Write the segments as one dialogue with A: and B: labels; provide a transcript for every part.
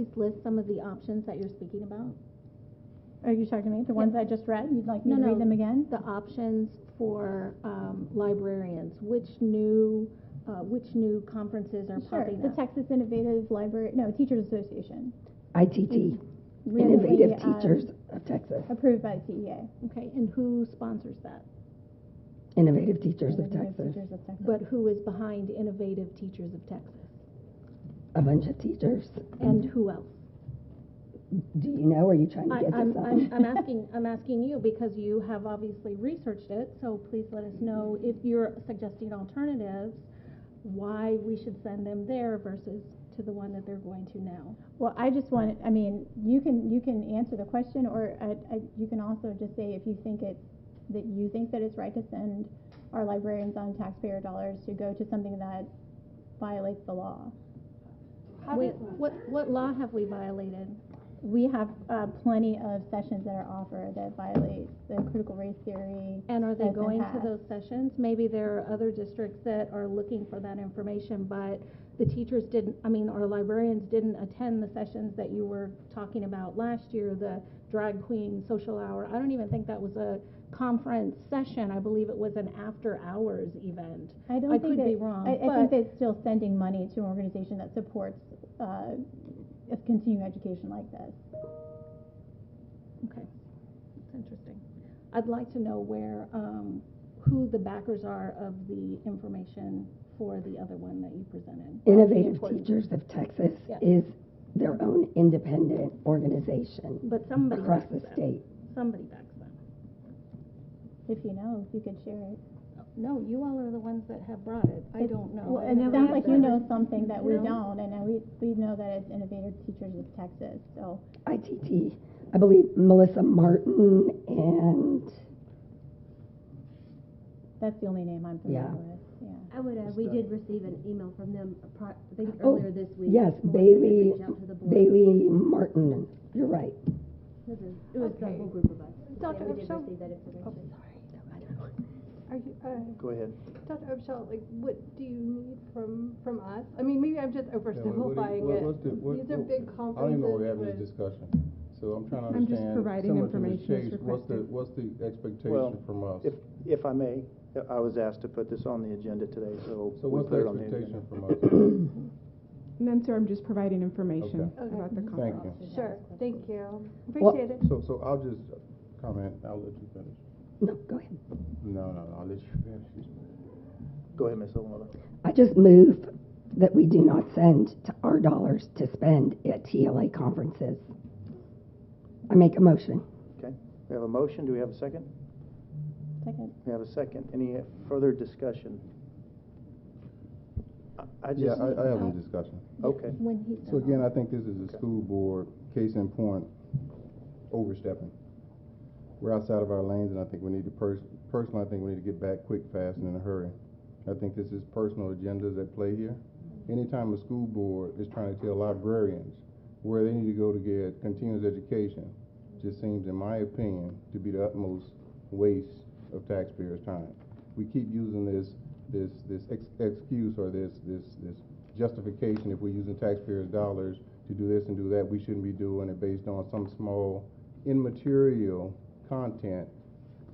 A: Please list some of the options that you're speaking about.
B: Are you talking to me? The ones I just read? You'd like me
A: No,
B: to
A: no.
B: read them again?
A: The options for um, librarians, which new, uh, which new conferences are
B: Sure,
A: popping
B: the
A: up?
B: Texas Innovative Library, no, Teachers Association.
C: ITT,
B: Recently,
C: Innovative
B: um,
A: uh,
C: Teachers of Texas,
B: Approved by the E TEA.
A: Okay, and who sponsors that?
C: Innovative Teachers of
B: Innovative
C: Texas,
B: Teachers of Texas.
A: But who is behind Innovative Teachers of Texas?
C: a bunch of teachers.
A: And who else?
C: Do you know, or are you trying to
A: Mm-hmm. I-
C: get
A: I'm,
C: this
A: I'm,
C: on?
A: I'm asking, I'm asking you because you have obviously researched it, so please let us know if you're suggesting alternatives, why we should send them there versus to the one that they're going to now.
B: Well, I just want, I mean, you can, you can answer the question, or I, I, you can also just say if you think it, that you think that it's right to send our librarians on taxpayer dollars to go to something that violates the law.
A: We, what, what law have we violated?
B: We have, uh, plenty of sessions that are offered that violate the critical race theory.
A: And are they
B: that's been
A: going to
B: passed.
A: those sessions? Maybe there are other districts that are looking for that information, but the teachers didn't, I mean, our librarians didn't attend the sessions that you were talking about last year, the drag queen social hour. I don't even think that was a conference session. I believe it was an after-hours event.
B: I
A: I
B: don't think
A: could be
B: that,
A: wrong,
B: I, I
A: but-
B: think that still sending money to an organization that supports, uh, a continuing education like this.
A: Okay, that's interesting. I'd like to know where, um, who the backers are of the information for the other one that you presented. That would be
C: Innovative
A: important.
C: Teachers of Texas
A: Yeah.
C: is their own independent organization
A: But somebody
C: across
A: backs
C: the
A: them.
C: state.
A: Somebody backs them.
B: If you know, if you could share it.
A: No, you all are the ones that have brought it. I don't know.
B: Well,
A: I've
B: and it
A: never
B: sounds
A: had
B: like
A: that.
B: you know something that we
A: No.
B: don't, and uh, we, we know that it's Innovative Teachers of Texas, so.
C: ITT, I believe Melissa Martin and,
B: That's the only name I'm
C: Yeah.
B: familiar with, yeah.
D: I would, uh, we did receive an email from them, appro- I think
C: Oh,
D: earlier this week.
C: yes,
D: Melissa did
C: Bailey,
D: reach out to the board.
C: Bailey Martin, you're right.
D: It was a- It was the
E: Okay.
D: whole group of us. Yeah,
E: Dr.
D: we did
E: Upshaw?
D: receive that
E: Oh,
D: information.
E: Are you, uh,
F: Go ahead.
E: Dr. Upshaw, like, what do you need from, from us? I mean, maybe I'm just
G: Yeah, what- what do you-
E: oversimplifying
G: what-
E: it.
G: what's the- what-
E: These are
G: what-
E: big
G: I don't even know we're having
E: conferences
G: this
E: with-
G: discussion, so I'm trying to
H: I'm just
G: understand.
H: providing
G: similar to
H: information
G: Ms.
H: as
G: Chase, What's the,
H: requested.
G: what's the
F: Well,
G: expectation from us?
F: If, if I may, I was asked to put this on the agenda today, so.
G: So
F: we
G: what's
F: put
G: the
F: it on agenda.
G: expectation from us?
H: None, sir, I'm just providing information
E: Okay.
H: about the
G: Thank
H: conference.
G: you.
E: Sure, thank you.
C: Well-
E: Appreciate it.
G: So, so I'll just comment, I'll let you finish.
C: No, go ahead.
G: No, no, no, I'll let you finish.
F: Go ahead, Ms. Olmova.
C: I just move that we do not send to our dollars to spend at TLA conferences. I make a motion.
F: Okay, we have a motion, do we have a second?
B: Second,
F: We have a second, any further discussion? I- I
G: Yeah,
F: just,
G: I, I have a discussion.
F: okay,
A: When he
G: So
A: said,
G: again, I think this is a school board, case in point, overstepping. We're outside of our lanes, and I think we need to pers- personally, I think we need to get back quick, fast, and in a hurry. I think this is personal agendas at play here. Anytime a school board is trying to tell librarians where they need to go to get continuous education, just seems, in my opinion, to be the utmost waste of taxpayers' time. We keep using this, this, this ex- excuse or this, this, this justification if we're using taxpayers' dollars to do this and do that, we shouldn't be doing it based on some small immaterial content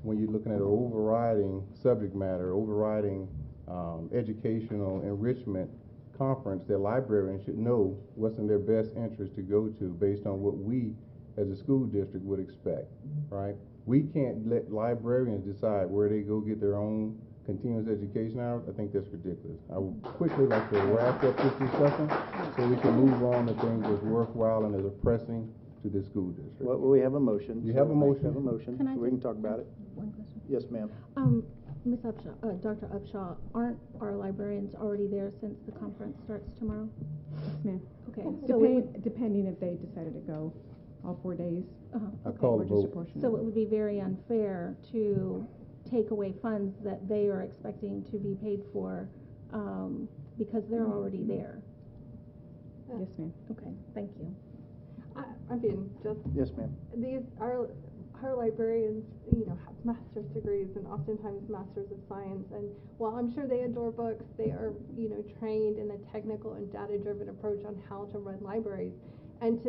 G: when you're looking at an overriding subject matter, overriding um, educational enrichment conference that librarians should know what's in their best interest to go to based on what we as a school district would expect, right? We can't let librarians decide where they go get their own continuous education hours. I think that's ridiculous. I would quickly like to wrap up this discussion so we can move on to things that's worthwhile and is pressing to this school district.
F: well, we have a motion.
G: You have a
F: so
G: motion.
F: We have a motion,
A: Can I
F: we can
A: just
F: talk about it.
A: one question.
F: Yes, ma'am.
A: Um, Ms. Upshaw, uh, Dr. Upshaw, aren't our librarians already there since the conference starts tomorrow?
H: Yes, ma'am.
A: Okay, so it would,
H: Depending, depending if they decided to go all four days,
A: uh-huh.
G: I
A: okay.
G: call
H: we're
G: the
H: just
G: vote.
H: apportioning.
A: So it would be very unfair to take away funds that they are expecting to be paid for, um, because they're already there.
H: Yes, ma'am.
A: Okay, thank you.
E: I, I mean, just,
F: Yes, ma'am.
E: these, our, our librarians, you know, have master's degrees and oftentimes masters of science. And while I'm sure they adore books, they are, you know, trained in the technical and data-driven approach on how to run libraries. and to